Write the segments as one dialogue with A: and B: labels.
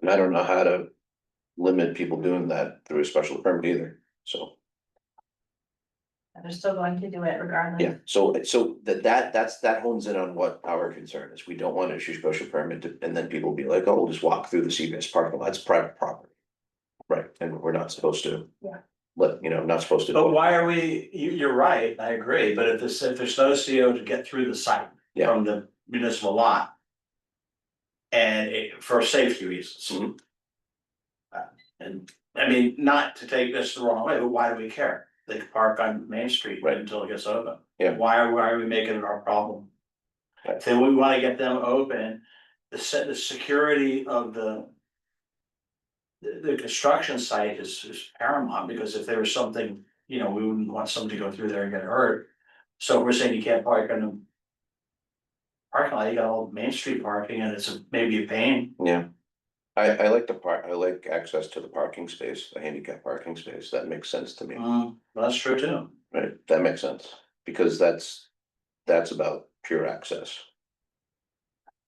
A: And I don't know how to limit people doing that through a special permit either, so,
B: They're still going to do it regardless.
A: yeah, so, so that, that, that's, that hones in on what our concern is, we don't want to issue special permit, to- and then people will be like, oh, we'll just walk through the CVS parking lot, it's private property. Right, and we're not supposed to.
B: Yeah.
A: Let, you know, not supposed to.
C: But why are we, you, you're right, I agree, but if this, if there's no CO E to get through the site
A: Yeah.
C: from the municipal lot. And it, for safety reasons.
A: Mhm.
C: Uh, And, I mean, not to take this the wrong way, but why do we care? They can park on Main Street
A: Right.
C: until it gets open.
A: Yeah.
C: Why are, why are we making it our problem?
A: Right.
C: So we wanna get them open, the se- the security of the. The, the construction site is, is paramount, because if there was something you know, we wouldn't want somebody to go through there and get hurt. So we're saying you can't park in the. Parking lot, you got all Main Street parking and it's a- maybe a pain.
A: Yeah. I, I like the part, I like access to the parking space, the handicap parking space, that makes sense to me.
D: Uh-huh.
C: Mm, that's true too.
A: Right, that makes sense, because that's, that's about pure access.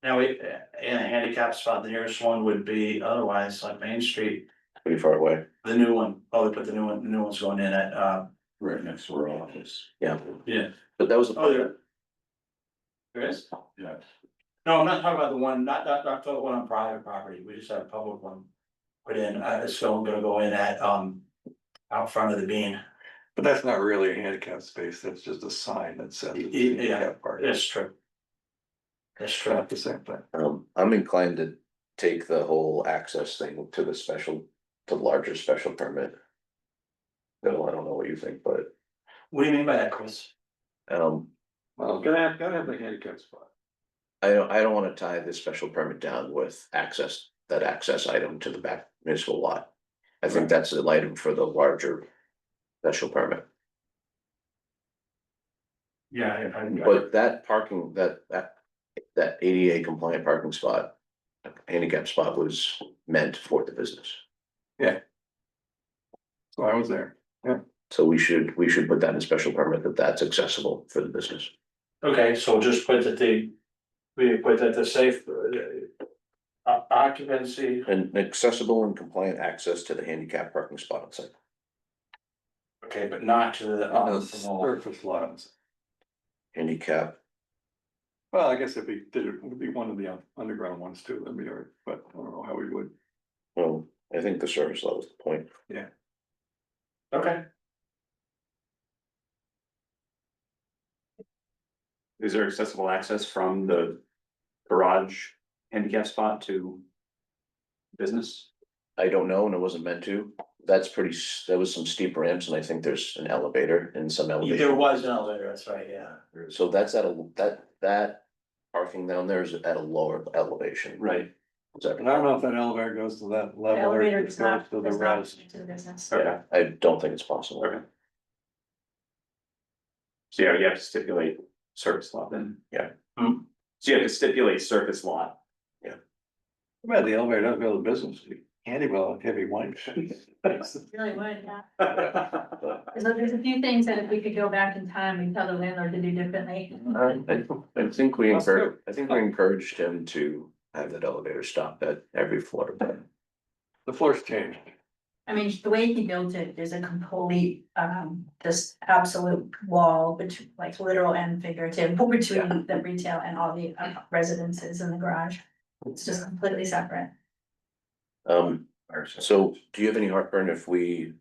C: Now, we, in a handicap spot, the nearest one would be otherwise like Main Street,
A: Pretty far away.
C: the new one, oh, they put the new one, the new one's going in at, uh.
D: Right next to our office,
A: Yeah.
C: Yeah.
A: But that was,
C: Oh,
A: the
C: there. There is?
D: yeah.
C: No, I'm not talking about the one, not, not, not the one on private property, we just had a public one. Put in, uh, it's going, gonna go in at, um, out front of the bean.
D: But that's not really a handicap space, that's just a sign that says. it's
C: Yeah.
D: handicap parking.
C: That's true. That's true.
D: Not the same thing.
A: um, I'm inclined to take the whole access thing to the special, to larger special permit. Though I don't know what you think, but,
C: What do you mean by that, Chris?
A: um,
D: Well, gotta have, gotta have the handicap spot.
A: I don't, I don't wanna tie this special permit down with access, that access item to the back municipal lot. I think that's the item for the larger special permit.
C: Yeah, I,
A: But that parking, that, that, that ADA compliant parking spot, handicap spot was meant for the business.
D: So I was there.
A: So we should, we should put that in special permit that that's accessible for the business.
C: Okay, so just put that the, we put that the safe, uh, o- occupancy,
A: And accessible and compliant access to the handicap parking spot on site.
C: okay, but not to the. um,
D: Those Surface lines.
A: Handicap,
D: Well, I guess if we did it, it would be one of the un- underground ones too, that'd be all right, but I don't know how we would.
A: well, I think the service level is the point.
C: Okay,
E: Is there accessible access from the garage handicap spot to business?
A: I don't know, and it wasn't meant to. That's pretty, s- that was some steep ramps, and I think there's an elevator and some elevator.
C: there was an elevator, that's right, yeah.
A: So that's at a, that, that parking down there is at a lower elevation.
E: Right.
A: Is that-
D: And I don't know if that elevator goes to that
B: The
D: level or
B: elevator
D: if
B: does
D: it goes
B: not,
D: to the
B: does not
D: rest.
B: connect to the business.
E: Okay,
A: I don't think it's possible.
E: Okay. so yeah, you have to stipulate surface lot then.
A: Yeah.
E: Hmm. So you have to stipulate surface lot.
D: Well, the elevator doesn't go to the business, candy well, heavy wine.
B: Really would, yeah.
E: But
B: So there's a few things that if we could go back in time and tell the landlord to do differently.
A: I, I think we
D: That's
A: encouraged, I think we encouraged him to have that elevator stop at every floor, but
D: The floor's changed.
B: I mean, the way he built it is a complete, um, this absolute wall, which like literal and figurative, between the retail and all the uh, residences in the garage. It's just completely separate.
A: um, so do you have any heartburn if we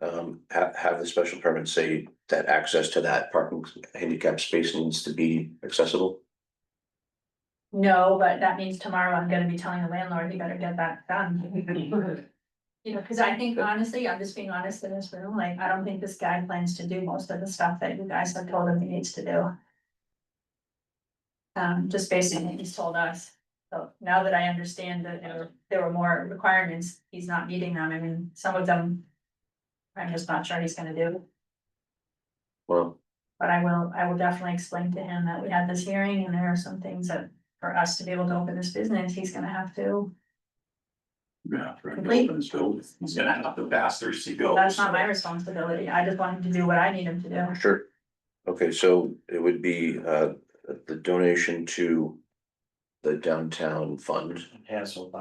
A: um, have, have the special permit say that access to that parking handicap space needs to be accessible?
B: No, but that means tomorrow I'm gonna be telling the landlord, you better get that done. You know, cause I think honestly, I'm just being honest in this room, like, I don't think this guy plans to do most of the stuff that you guys have told him he needs to do. Um, just basically, he's told us, so now that I understand that there were- there were more requirements, he's not meeting them, I mean, some of them. I'm just not sure he's gonna do.
A: Well,
B: But I will, I will definitely explain to him that we had this hearing and there are some things that for us to be able to open this business, he's gonna have to.
D: Yeah.
B: Complete.
D: He's gonna have the bastards to go.
B: That's not my responsibility. I just want him to do what I need him to do.
A: sure. Okay, so it would be uh, the donation to the downtown fund.
C: Cancel by